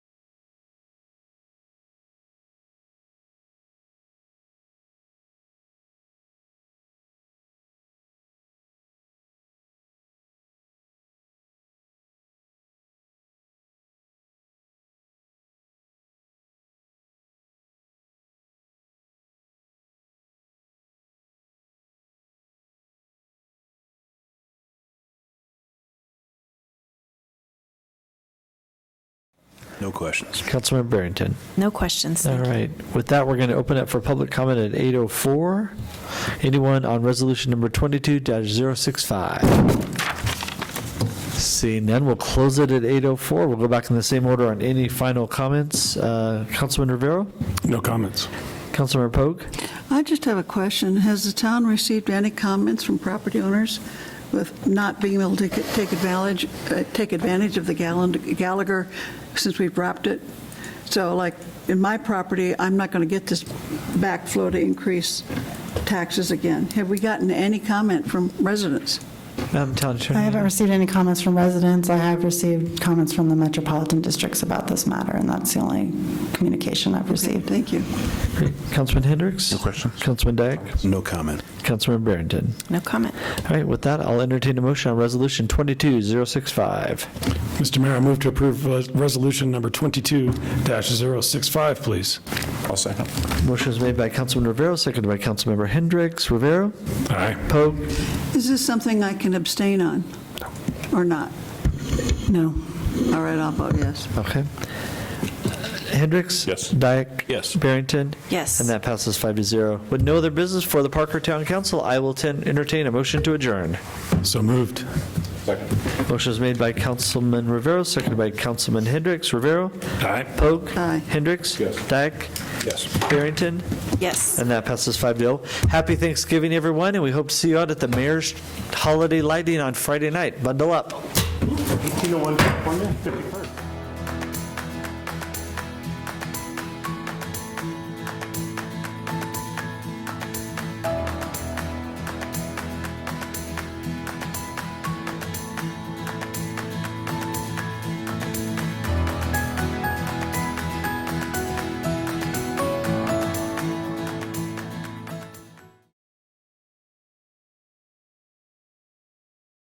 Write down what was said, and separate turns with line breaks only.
No questions.
Councilmember Barrington.
No questions.
All
Thank you.
right. With that, we're going to open up for public comment at 8:04. Anyone on resolution number 22-065? Seeing none, we'll close it at 8:04. We'll go back in the same order on any final comments. Uh, Councilman Rivera?
No comments.
Councilmember Pogue?
I just have a question. Has the town received any comments from property owners with not being able to get- take advantage, uh, take advantage of the Gallan- Gallagher since we've dropped it? So like, in my property, I'm not going to get this backflow to increase taxes again. Have we gotten any comment from residents?
Madam Town Attorney?
I haven't received any comments from residents. I have received comments from the metropolitan districts about this matter, and that's the only communication I've received.
Thank you.
Great. Councilman Hendricks? No
questions.
Councilman Dyak?
No comment.
Councilmember Barrington?
No comment.
All right. With that, I'll entertain a motion on resolution 22-065.
Mr. Mayor, I move to approve uh, Resolution Number 22-065, please.
I'll second.
Motion is made by Councilman Rivera, seconded by Councilmember Hendricks. Rivera?
Aye.
Pogue?
Is this something I can abstain on or not? No. All right, I'll vote yes.
Okay. Hendricks?
Yes.
Dyak?
Yes.
Barrington?
Yes.
And that passes five to zero. With no other business for the Parker Town Council, I will ten- entertain a motion to adjourn.
So moved.
Motion is made by Councilman Rivera, seconded by Councilman Hendricks. Rivera?
Aye.
Pogue?
Aye.
Hendricks?
Yes.
Dyak?
Yes.
Barrington?
Yes.
And that passes five to zero. Happy Thanksgiving, everyone, and we hope to see you out at the mayor's holiday lighting on Friday night. Bundle up.
You know, one, one, yeah, 53rd.